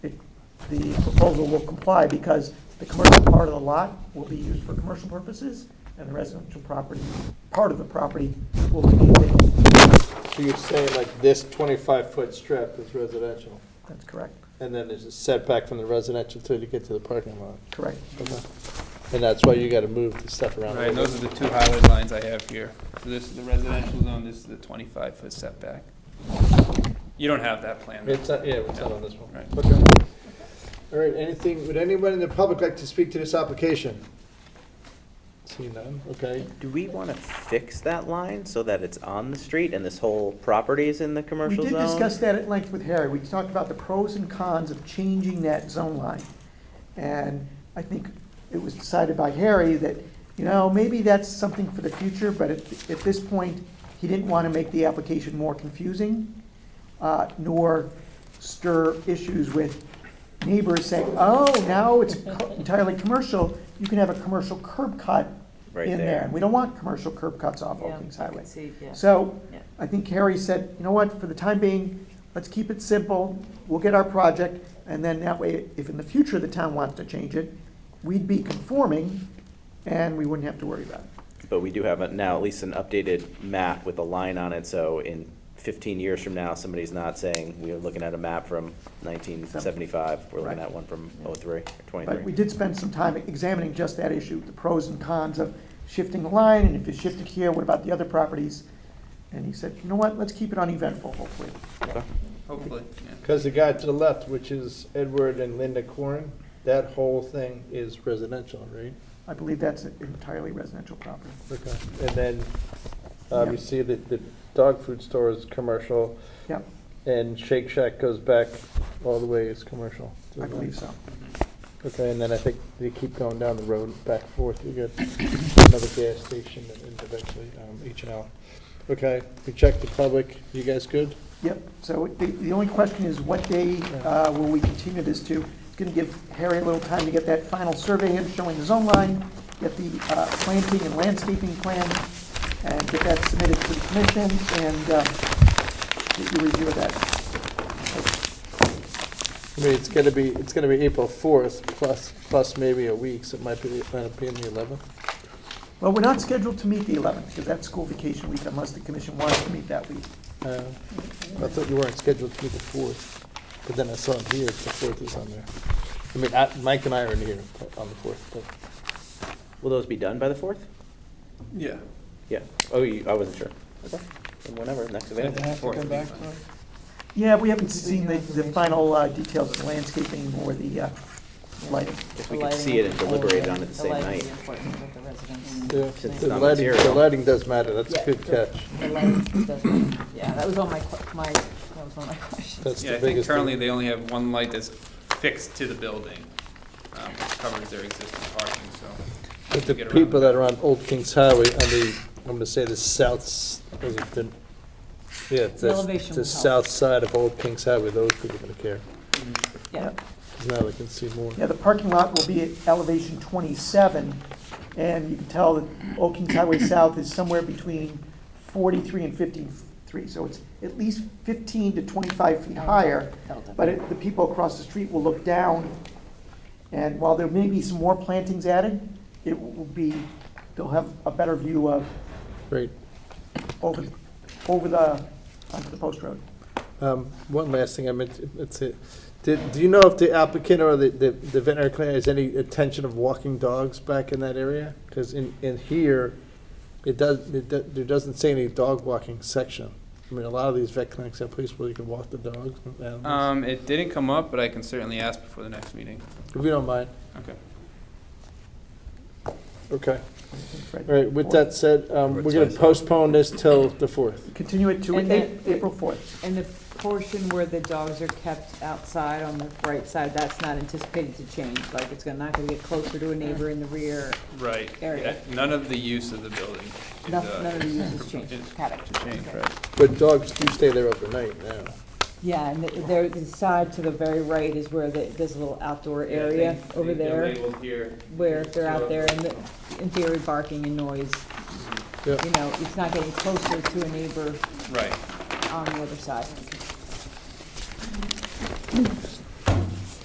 the proposal will comply because the commercial part of the lot will be used for commercial purposes, and the residential property, part of the property will be vacant. So you're saying like this twenty-five foot strip is residential, That's correct, and then there's a setback from the residential till you get to the parking lot? correct. And that's why you gotta move the stuff around. Right, those are the two highlighted lines I have here. So this is the residential zone, this is the twenty-five foot setback. You don't have that plan. It's not, yeah, it's not on this one. Right. Okay. All right, anything, would anyone in the public like to speak to this application? See none, okay. Do we want to fix that line so that it's on the street and this whole property is in the We commercial did zone? discuss that at length with Harry. We talked about the pros and cons of changing that zone line. And I think it was decided by Harry that, you know, maybe that's something for the future, but at, at this point, he didn't want to make the application more confusing, uh, nor stir issues with neighbors saying, oh, now it's co- entirely commercial, you can have a commercial curb cut Right in there. there. And we don't want commercial curb cuts off Yeah, Old Kings I can Highway. see, yeah. So Yeah. I think Harry said, you know what, for the time being, let's keep it simple. We'll get our project, and then that way, if in the future the town wants to change it, we'd be conforming, and we wouldn't have to worry about it. But we do have a- now at least an updated map with a line on it, so in fifteen years from now, somebody's not saying, we are looking at a map from nineteen seventy-five, we're looking Right. at one from oh-three, or But we twenty-three. did spend some time examining just that issue, the pros and cons of shifting the line, and if you shift it here, what about the other properties? And he said, you know what, let's keep it uneventful, hopefully. Okay. Hopefully, yeah. Because the guy to the left, which is Edward and Linda Corin, that whole thing is residential, right? I believe that's an entirely residential property. Okay. And then, uh, Yeah. you see that the dog food store is commercial, Yep, and Shake Shack goes back all the way, it's commercial. I believe so. Mm-hmm. Okay, and then I think they keep going down the road, back and forth, you get another gas station and and eventually um, H and L. Okay, we checked the public, you guys good? Yep, so the, the only question is what day uh, will we continue this to? It's going to give Harry a little time to get that final survey in showing the zone line, get the uh, planting and landscaping plan, and get that submitted to the commission and uh, get your review of that. I mean, it's gonna be, it's gonna be April fourth, plus, plus maybe a week, so it might be, might be in the eleventh. Well, we're not scheduled to meet the 11th because that's school vacation week unless the commission wants to meet that week. Uh, I thought you weren't scheduled to be the fourth, but then I saw it here, the fourth is on there. I mean, I- Mike and I are in here on the fourth, but, Will those be done by the fourth? Yeah. Yeah, oh, you, I wasn't sure. Okay, Then whenever, next available. Fourth would be fine. Yeah, we haven't seen the, the final uh, details of landscaping or the uh, lighting. If The we could lighting see it is and deliberate on it the same lighting is night. important with the residents. yeah, Since it's the not lighting, the material. lighting does matter, that's a Yeah, good the- catch. The lighting doesn't, yeah, that was on my, que- my, that was on my question. That's Yeah, the I think biggest currently thing. they only have one light that's fixed to the building, um, which covers their existing parking, so. But the get around people that. that are on Old Kings Highway, on the, I'm gonna say the south, s- is it the, yeah, the, elevation the will help. south side of Old Kings Highway, those people are gonna care, Yeah, because now they can see more. Yeah, the parking lot will be at elevation 27, and you can tell that Old Kings Highway South is somewhere between 43 and 53, so it's at least 15 to 25 feet higher, but it- the people across the street will look down, and while there may be some more plantings added, it will be, they'll have a better view of, Great. over, over the, onto the post road. Um, One last thing I meant, to- that's it. Did, do you know if the applicant or the, the the veterinary clinic has any intention of walking dogs back in that area? Because in, in here, it does, it, do- there doesn't say any dog walking section. I mean, a lot of these vet clinics have places where you can walk the dogs, and animals. Um, it didn't come up, but I can certainly ask before the next meeting. if you don't mind. Okay. Okay. Fred, All right, with that said, um, we're gonna postpone this till the fourth. Continue it to And A- then- April 4th. and the portion where the dogs are kept outside on the right side, that's not anticipated to change, like it's gonna, not gonna get closer to a neighbor in the rear, Right, Area. Yeah, none of the use of the building. is, none uh, none of the uses change, is- Got it. To change, Okay. right. But dogs do stay there overnight now. Yeah, and the- there, the side to the very right is where the, there's a little outdoor Yeah, area they- over they're there, labeled here. where if they're So- out there and the- in theory barking and noise, Yeah. you know, it's not getting closer to a neighbor Right. on the other side.